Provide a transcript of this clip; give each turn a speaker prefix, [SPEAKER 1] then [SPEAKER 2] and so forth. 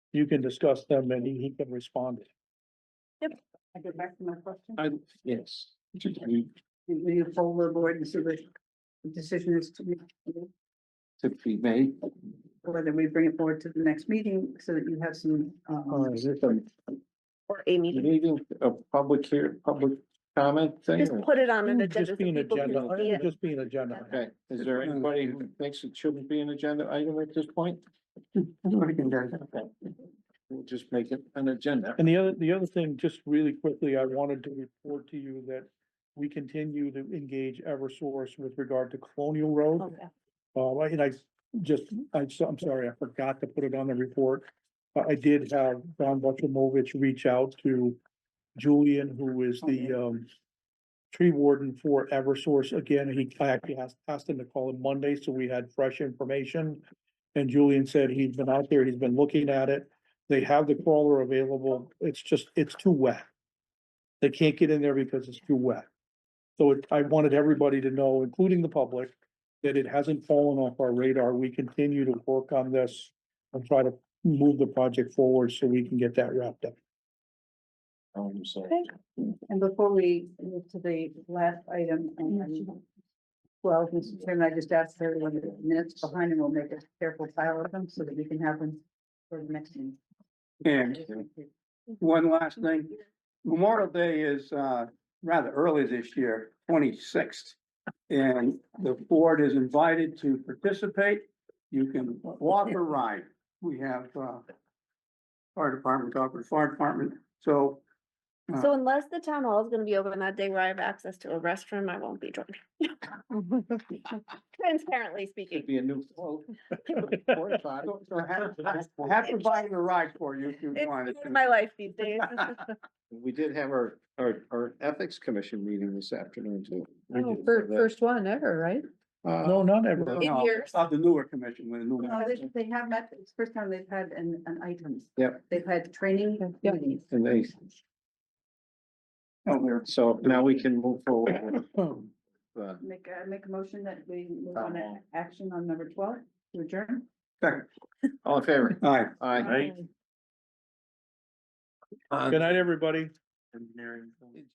[SPEAKER 1] you can discuss them and he, he can respond.
[SPEAKER 2] I get back to my question.
[SPEAKER 3] I,
[SPEAKER 1] Yes.
[SPEAKER 3] to
[SPEAKER 2] Do you poll the board and see what the decision is to be,
[SPEAKER 3] be made.
[SPEAKER 2] whether we bring it forward to the next meeting so that you have some, uh,
[SPEAKER 3] Is it a
[SPEAKER 4] or a meeting.
[SPEAKER 3] meeting, a public here, public comment thing?
[SPEAKER 4] Just
[SPEAKER 3] or-
[SPEAKER 4] put it on an agenda. so
[SPEAKER 1] Just be an
[SPEAKER 4] people can
[SPEAKER 1] agenda,
[SPEAKER 4] see
[SPEAKER 1] it
[SPEAKER 4] it.
[SPEAKER 1] would just be an agenda.
[SPEAKER 3] Okay, is there anybody who thinks it shouldn't be an agenda item at this point? Okay. We'll just make it an agenda.
[SPEAKER 1] And the other, the other thing, just really quickly, I wanted to report to you that we continue to engage Eversource with regard to Colonial Road.
[SPEAKER 4] Okay.
[SPEAKER 1] Uh, I- and I just, I'm so, I'm sorry, I forgot to put it on the report. Uh, I did have Don Butchamovich reach out to Julian, who is the, um, tree warden for Eversource again. He, I actually asked, asked him to call him Monday, so we had fresh information. And Julian said he's been out there, he's been looking at it. They have the crawler available. It's just, it's too wet. They can't get in there because it's too wet. So it- I wanted everybody to know, including the public, that it hasn't fallen off our radar. We continue to work on this and try to move the project forward so we can get that wrapped up.
[SPEAKER 3] Um, so,
[SPEAKER 2] and before we move to the last item. um, Well, Mr. Chairman, I just asked everyone the minutes behind and we'll make a careful file of them so that we can have them for the next meeting.
[SPEAKER 5] And one last thing, Memorial Day is uh rather early this year, twenty-sixth. And the board is invited to participate. You can walk or ride. We have uh fire department, Concord Fire Department, so
[SPEAKER 4] So unless the town hall is gonna be open that day where I have access to a restroom, I won't be joining. Transparently
[SPEAKER 3] it'd
[SPEAKER 4] speaking.
[SPEAKER 3] be a new. float. Or if I-
[SPEAKER 5] so I have I have provided a ride for you if you wanted.
[SPEAKER 4] It's my life these days.
[SPEAKER 3] We did have our, our, our ethics commission meeting this afternoon too.
[SPEAKER 6] First, Oh, first one ever, right?
[SPEAKER 3] Uh,
[SPEAKER 1] No, not
[SPEAKER 5] No,
[SPEAKER 1] ever.
[SPEAKER 5] no,
[SPEAKER 4] yours.
[SPEAKER 5] Of the newer commission with a new.
[SPEAKER 4] Oh,
[SPEAKER 2] No, they, they have met, it's the first time they've had an, an item.
[SPEAKER 3] Yep.
[SPEAKER 2] They've had training
[SPEAKER 6] Yep.
[SPEAKER 2] meetings.
[SPEAKER 3] And they,
[SPEAKER 5] No, they're-
[SPEAKER 3] so now we can move forward. with, uh,
[SPEAKER 2] Make, uh, make a motion that we move on to action on number twelve, to adjourn.
[SPEAKER 5] Second.
[SPEAKER 3] All in favor?
[SPEAKER 5] All right.
[SPEAKER 3] Aye.
[SPEAKER 1] Uh, Good night, everybody.